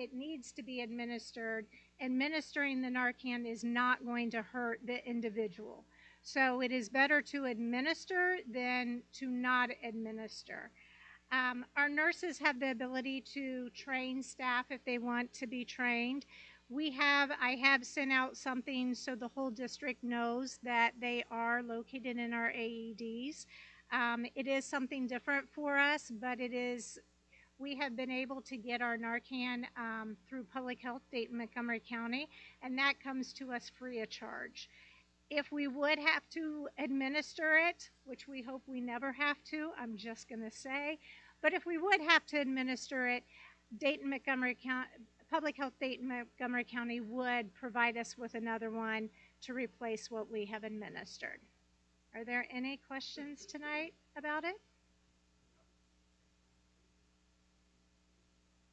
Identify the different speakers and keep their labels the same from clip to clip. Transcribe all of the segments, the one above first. Speaker 1: it needs to be administered, administering the Narcan is not going to hurt the individual. So it is better to administer than to not administer. Um, our nurses have the ability to train staff if they want to be trained. We have, I have sent out something so the whole district knows that they are located in our AEDs. Um, it is something different for us, but it is we have been able to get our Narcan um, through Public Health Dayton Montgomery County, and that comes to us free of charge. If we would have to administer it, which we hope we never have to, I'm just going to say, but if we would have to administer it, Dayton Montgomery County, Public Health Dayton Montgomery County would provide us with another one to replace what we have administered. Are there any questions tonight about it?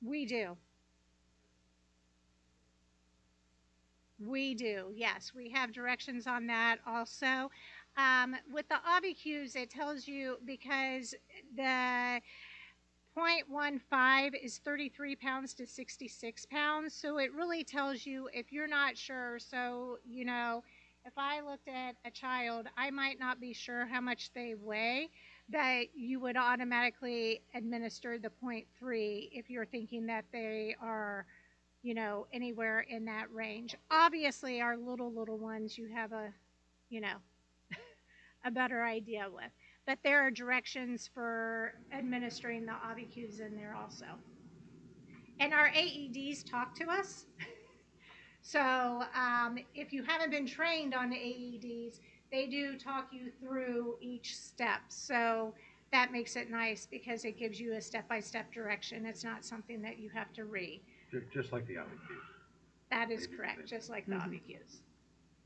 Speaker 1: We do. We do, yes. We have directions on that also. Um, with the obicus, it tells you because the 0.15 is 33 pounds to 66 pounds. So it really tells you if you're not sure. So, you know, if I looked at a child, I might not be sure how much they weigh that you would automatically administer the 0.3 if you're thinking that they are, you know, anywhere in that range. Obviously, our little, little ones, you have a, you know, a better idea with. But there are directions for administering the ABQs in there also. And our AEDs talk to us. So um, if you haven't been trained on E AEDs, they do talk you through each step. So that makes it nice because it gives you a step-by-step direction. It's not something that you have to read.
Speaker 2: Ju- Just like the IBQ.
Speaker 1: That is correct, just like the
Speaker 3: Mm-hmm.
Speaker 1: obicus.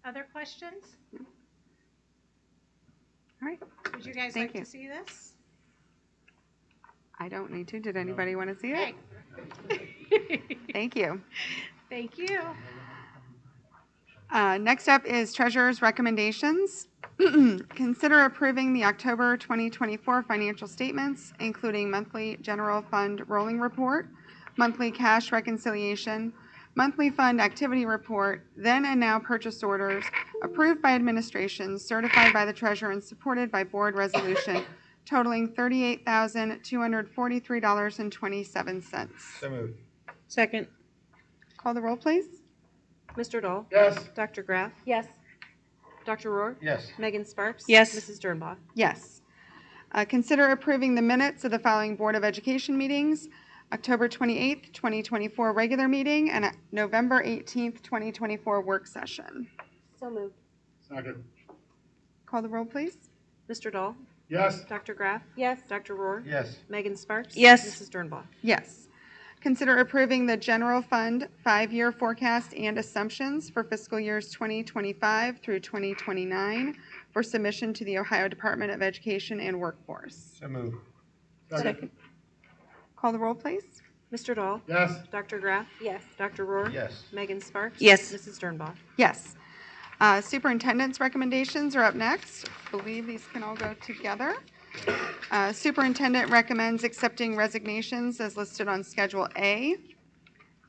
Speaker 1: Other questions?
Speaker 3: All right,
Speaker 1: Would you guys
Speaker 3: Thank
Speaker 1: like to
Speaker 3: you.
Speaker 1: see this?
Speaker 3: I don't need to. Did anybody want to see it?
Speaker 1: Okay.
Speaker 3: Thank you.
Speaker 1: Thank you.
Speaker 3: Uh, Next up is Treasurer's Recommendations. Consider approving the October 2024 financial statements, including monthly general fund rolling report, monthly cash reconciliation, monthly fund activity report, then and now purchase orders, approved by administration, certified by the treasurer, and supported by board resolution totaling $38,243.27.
Speaker 2: So moved.
Speaker 4: Second.
Speaker 3: Call the roll, please.
Speaker 5: Mr. Dahl.
Speaker 2: Yes.
Speaker 5: Dr. Graff.
Speaker 4: Yes.
Speaker 5: Dr. Rohr.
Speaker 2: Yes.
Speaker 5: Megan Sparks.
Speaker 4: Yes.
Speaker 5: Mrs. Dernbaugh.
Speaker 3: Yes. Uh, Consider approving the minutes of the following Board of Education meetings. October 28th, 2024 regular meeting and uh, November 18th, 2024 work session.
Speaker 5: So moved.
Speaker 2: Second.
Speaker 3: Call the roll, please.
Speaker 5: Mr. Dahl.
Speaker 2: Yes.
Speaker 5: Dr. Graff.
Speaker 4: Yes.
Speaker 5: Dr. Rohr.
Speaker 2: Yes.
Speaker 5: Megan Sparks.
Speaker 4: Yes.
Speaker 5: Mrs. Dernbaugh.
Speaker 3: Yes. Consider approving the general fund five-year forecast and assumptions for fiscal years 2025 through 2029 for submission to the Ohio Department of Education and Workforce.
Speaker 2: So moved.
Speaker 4: Second.
Speaker 3: Call the roll, please.
Speaker 5: Mr. Dahl.
Speaker 2: Yes.
Speaker 5: Dr. Graff.
Speaker 4: Yes.
Speaker 5: Dr. Rohr.
Speaker 2: Yes.
Speaker 5: Megan Sparks.
Speaker 4: Yes.
Speaker 5: Mrs. Dernbaugh.
Speaker 3: Yes. Uh, Superintendent's recommendations are up next. I believe these can all go together. Uh, Superintendent recommends accepting resignations as listed on Schedule A.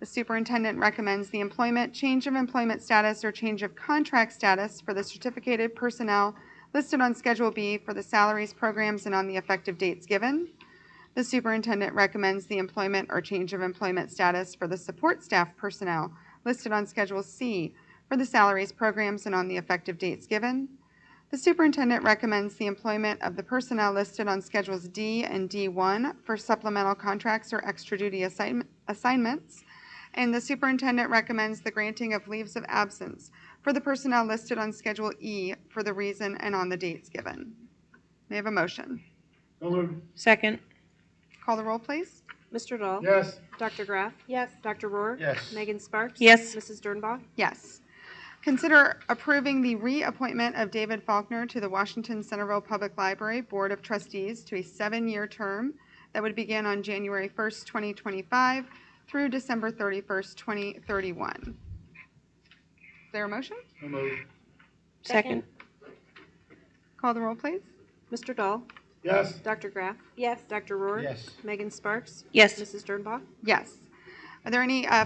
Speaker 3: The superintendent recommends the employment, change of employment status, or change of contract status for the certificated personnel listed on Schedule B for the salaries, programs, and on the effective dates given. The superintendent recommends the employment or change of employment status for the support staff personnel listed on Schedule C for the salaries, programs, and on the effective dates given. The superintendent recommends the employment of the personnel listed on Schedules D and D1 for supplemental contracts or extra duty assign- assignments. And the superintendent recommends the granting of leaves of absence for the personnel listed on Schedule E for the reason and on the dates given. May I have a motion?
Speaker 2: So moved.
Speaker 4: Second.
Speaker 3: Call the roll, please.
Speaker 5: Mr. Dahl.
Speaker 2: Yes.
Speaker 5: Dr. Graff.
Speaker 4: Yes.
Speaker 5: Dr. Rohr.
Speaker 2: Yes.
Speaker 5: Megan Sparks.
Speaker 4: Yes.
Speaker 5: Mrs. Dernbaugh.
Speaker 3: Yes. Consider approving the reappointment of David Faulkner to the Washington Centerville Public Library Board of Trustees to a seven-year term that would begin on January 1st, 2025 through December 31st, 2031. Is there a motion?
Speaker 2: So moved.
Speaker 4: Second.
Speaker 3: Call the roll, please.
Speaker 5: Mr. Dahl.
Speaker 2: Yes.
Speaker 5: Dr. Graff.
Speaker 4: Yes.
Speaker 5: Dr. Rohr.
Speaker 2: Yes.
Speaker 5: Megan Sparks.
Speaker 4: Yes.
Speaker 5: Mrs. Dernbaugh.
Speaker 3: Yes. Are there any uh,